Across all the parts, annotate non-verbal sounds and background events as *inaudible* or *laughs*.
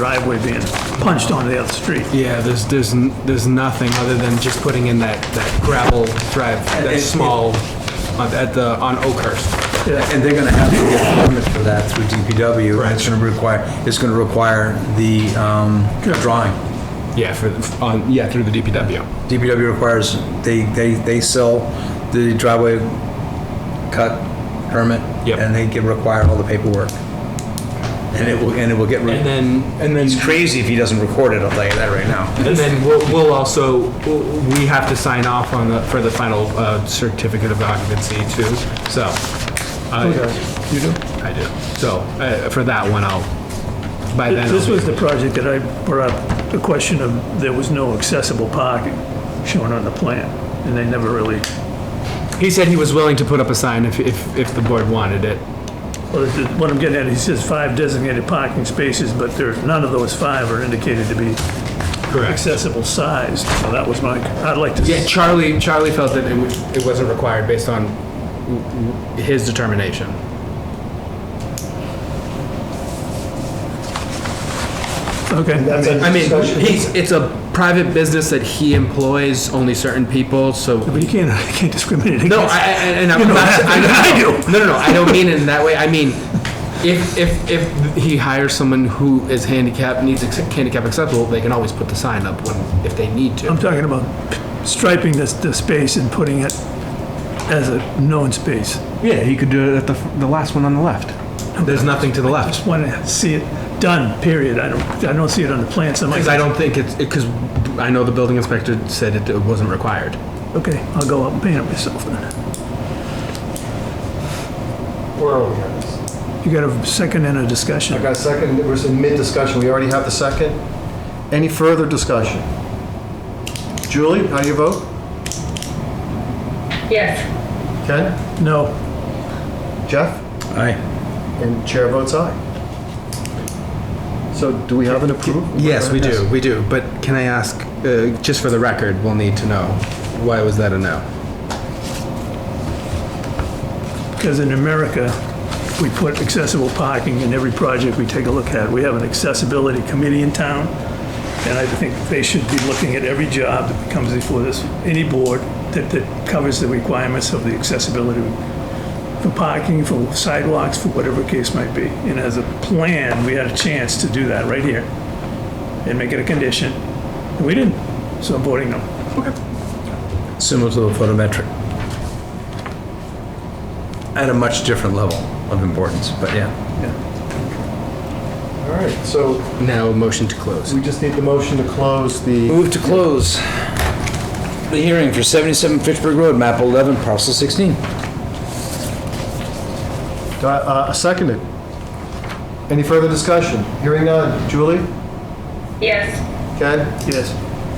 driveway being punched onto the other street. Yeah, there's, there's, n- there's nothing other than just putting in that, that gravel drive, that it- small, on- at the, on Oakhurst. And they're gonna have to get a permit for that through DPW. Right. It's gonna require, it's gonna require the, um, drawing. Yeah, for, the- on, yeah, through the DPW. DPW requires, they, they, they sell the driveway cut permit. Yep. And they get, require all the paperwork. And it will, and it will get, And re- then, and then, it's crazy if he doesn't record it, I'll tell you that right now. and then we'll, we'll also, we have to sign off on the, for the final, uh, certificate of occupancy too, so. uh, You do? I do. So, uh, for that one, I'll, by then. This I'll- was the project that I brought up, the question of there was no accessible parking shown on the plan, and they never really, He said he was willing to put up a sign if, if, if the board wanted it. well, the- what I'm getting at, he says five designated parking spaces, but there, none of those five are indicated to be Correct. accessible sized, so that was my, I'd like to. Yeah, Charlie, Charlie felt that it, w- it wasn't required based on w- w- his determination. Okay, I mean, I mean, he's, it's a private business that he employs only certain people, so. but you can't, *laughs* you can't discriminate against. No, I, I- and I'm You know not, that I, better than *laughs* I no, No, no, no, I don't mean it in that way. I mean, if, if, if he hires someone who is handicapped, needs ex- handicap accessible, they can always put the sign up when, if they need to. I'm talking about striping this, the space and putting it as a known space. Yeah, he could do it at the, the last one on the left. There's nothing to the left. Want to see it done, period. I don't, I don't see it on the plan, so I'm Because I like, don't think it's, because I know the building inspector said it it wasn't required. okay, I'll go up and paint it myself then. Where are we at? You got a second and a discussion? I got a second, we're in mid-discussion, we already have the second. Any further discussion? Julie, how do you vote? Yes, Ken? No, Jeff? Aye. And chair votes aye. So do we have an approval? Yes, we do, we do. But can I ask, uh, just for the record, we'll need to know, why was that a no? because in America, we put accessible parking in every project we take a look at. We have an accessibility committee in town, and I think they should be looking at every job that comes before this, any board that, that covers the requirements of the accessibility for parking, for sidewalks, for whatever case might be. And as a plan, we had a chance to do that right here and make it a condition. And we didn't, so I'm voting no. Similar to the photometric. At a much different level of importance, but yeah. All right, so Um, Now, motion to close. we just need the motion to close the, Move to close the hearing for 77 Fitchburg Road, map 11, parcel 16. uh, seconded. Any further discussion? Hearing none. Julie? yes. Ken? Yes.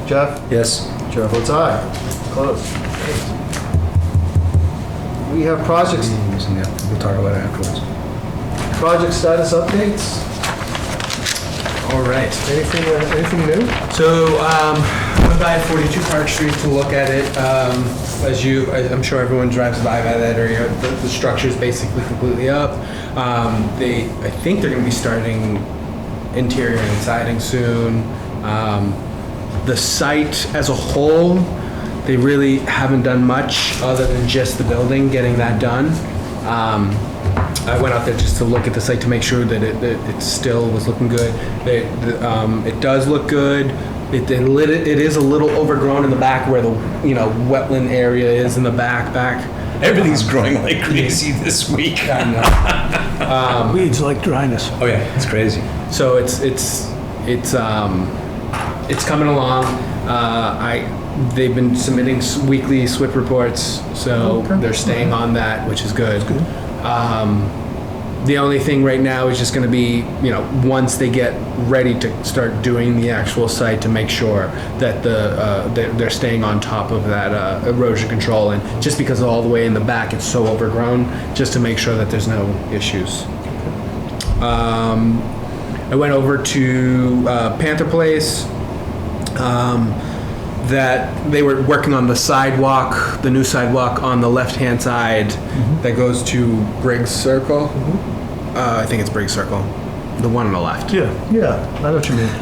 Jeff? Yes. Chair votes aye. Close. Thanks. We have projects, Yeah, We'll talk about it afterwards. project status updates. All right. Anything, uh, anything new? So, um, I went by 42 Park Street to look at it. Um, as you, I- I'm sure everyone drives by by that area. The, the structure's basically completely up. Um, they, I think they're gonna be starting interior and siding soon. Um, the site as a whole, they really haven't done much other than just the building, getting that done. Um, I went out there just to look at the site to make sure that it, that it still was looking good. They- the, um, it does look good. It, they lit it, it is a little overgrown in the back where the, you know, wetland area is in the back, back. Everything's growing like crazy this week. Weeds like dryness. Oh yeah, it's crazy. So it's, it's, it's, um, it's coming along. Uh, I, they've been submitting s- weekly SWIP reports, so they're staying on that, which is good. Um, The only thing right now is just gonna be, you know, once they get ready to start doing the actual site to make sure that the, uh, they're, they're staying on top of that, uh, erosion control and just because all the way in the back, it's so overgrown, just to make sure that there's no issues. Um, I went over to, uh, Panther Place, um, that they were working on the sidewalk, the new sidewalk on the left-hand side that goes to Briggs Circle. Uh, I think it's Briggs Circle. the one on the left. Yeah. Yeah, I know what you mean.